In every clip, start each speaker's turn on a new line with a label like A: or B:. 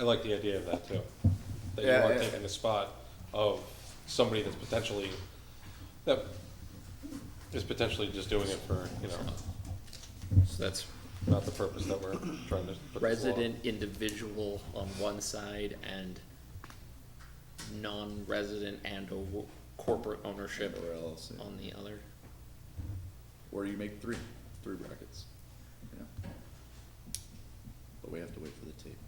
A: like the idea of that too. That you
B: Yeah,
A: are
B: yeah.
A: taking the spot of somebody that's potentially, that is potentially just doing it for, you know,
C: So that's
A: not the purpose that we're trying to. put this law.
C: resident individual on one side and non-resident and or wo- corporate ownership
B: Or else, yeah.
C: on the other.
B: Or you make three, three brackets, you know. But we have to wait for the tape.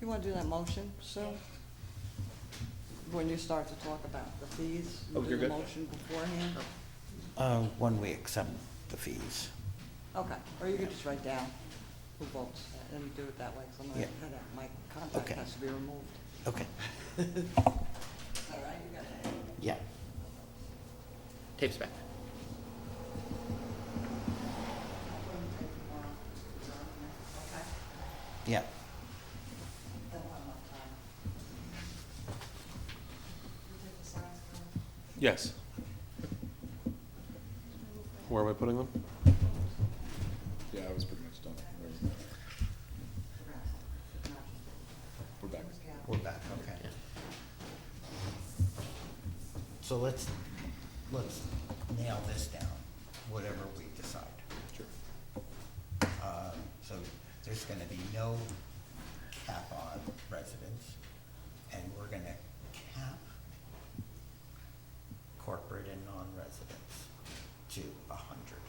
D: You want to do that motion, Sue? When you start to talk about the fees, you
C: Oh,
D: do
C: you're
D: the
C: good.
D: motion beforehand?
E: Uh, when we accept the fees.
F: Oh.
D: Okay, or you could just write down who votes and do it that way, because I'm gonna,
E: Yeah.
D: cut out- my
E: Okay.
D: contact has to be removed.
E: Okay,
D: All right, you got it.
E: yeah.
C: Tape's back.
D: Okay,
E: Yeah,
D: then one more time.
A: Yes. Where am I putting them?
B: Yeah, I was pretty much done. We're- We're back.
E: we're back, okay.
C: Yeah.
E: So let's, let's nail this down, whatever we decide.
B: Sure.
E: Um, So there's gonna be no cap on residents, and we're gonna cap corporate and non-residents to a hundred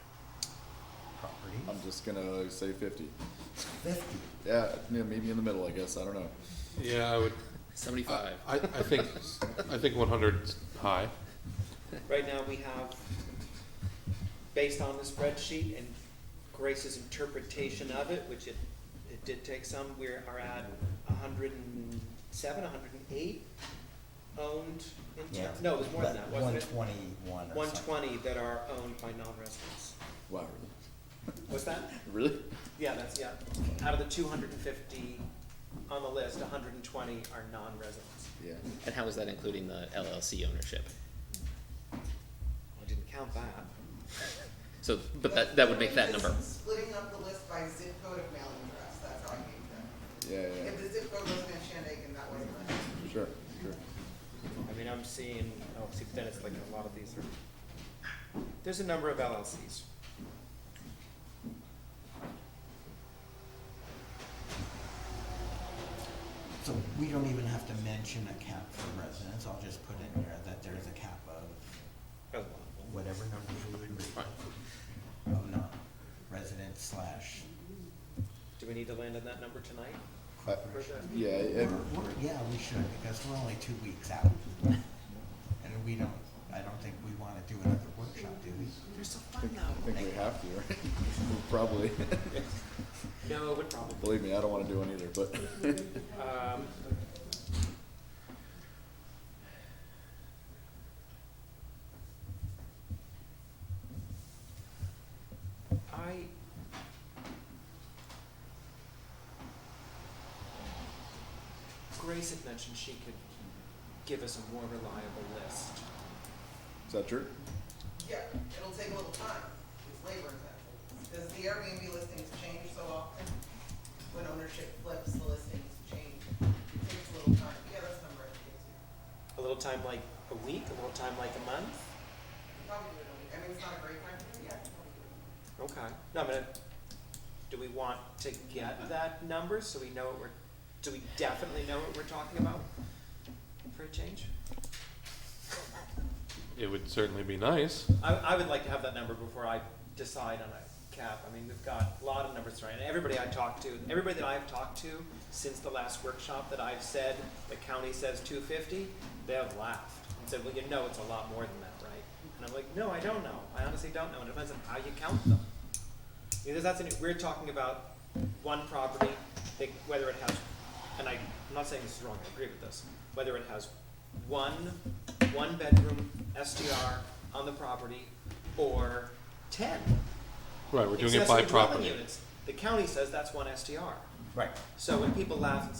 E: properties.
B: I'm just gonna say fifty.
E: Fifty,
B: Yeah, yeah, maybe in the middle, I guess, I don't know.
A: Yeah, I would,
C: Seventy-five.
A: I, I think, I think one hundred's high.
G: Right now, we have, based on the spreadsheet and Grace's interpretation of it, which it, it did take some, we are at hundred and seven, hundred and eight owned in
E: yeah.
G: town. No, it was more than that, wasn't it?
E: One twenty-one or
G: One
E: something.
G: twenty that are owned by non-residents.
B: Wow,
G: What's that?
B: really? Really?
G: Yeah, that's, yeah. Out of the two hundred and fifty on the list, hundred and twenty are non-residents.
B: Yeah.
C: And how is that including the LLC ownership?
G: I didn't count that.
C: So, but that, that would make that number.
F: Splitting up the list by zip code of mailing address, that's how I made that.
B: Yeah,
F: If the zip code wasn't in Shandaken, that wasn't. it.
B: yeah, sure, sure.
G: I mean, I'm seeing, oh, see, but then it's like a lot of these are, there's a number of LLCs.
E: So we don't even have to mention a cap for residents, I'll just put in there that there's a cap of
G: A lot of them.
E: whatever number we would read. Of non-resident slash
G: Do we need to land on that number tonight?
B: I-
G: Or the-
B: Yeah,
E: We're-
B: and,
E: we're- Yeah, we should, because we're only two weeks out. And we don't, I don't think we wanna do another workshop, do we?
B: I think- I think we have to, right? Probably.
G: No, it would probably,
B: Believe me, I don't wanna do one either, but,
G: um, I. Grace had mentioned she could give us a more reliable list.
B: is that true?
F: Yeah, it'll take a little time, it's labor intensive. Does the Airbnb listings change so often? When ownership flips, the listings change, it takes a little time, yeah, that's number it gives you.
G: A little time like a week, a little time like a month?
F: You Probably do it, in a week. I mean, it's not a great time, to do it, yeah. you probably do it.
G: Okay, no, I'm gonna, do we want to get that number so we know what we're, do we definitely know what we're talking about for a change?
A: It would certainly be nice.
G: I, I would like to have that number before I decide on a cap. I mean, we've got a lot of numbers tonight, and everybody I talked to, everybody that I've talked to since the last workshop that I've said, the county says two fifty, they have laughed and said, well, you know it's a lot more than that, right? And I'm like, no, I don't know. I honestly don't know. And it depends on how you count them. Because that's, an- we're talking about one property, they, whether it has, and I, I'm not saying this is wrong, I agree with this, whether it has one, one-bedroom SDR on the property, or ten.
A: Right, we're doing it by
G: accessory dwelling
A: property.
G: units. The county says that's one SDR.
E: Right.
G: So when people laugh and say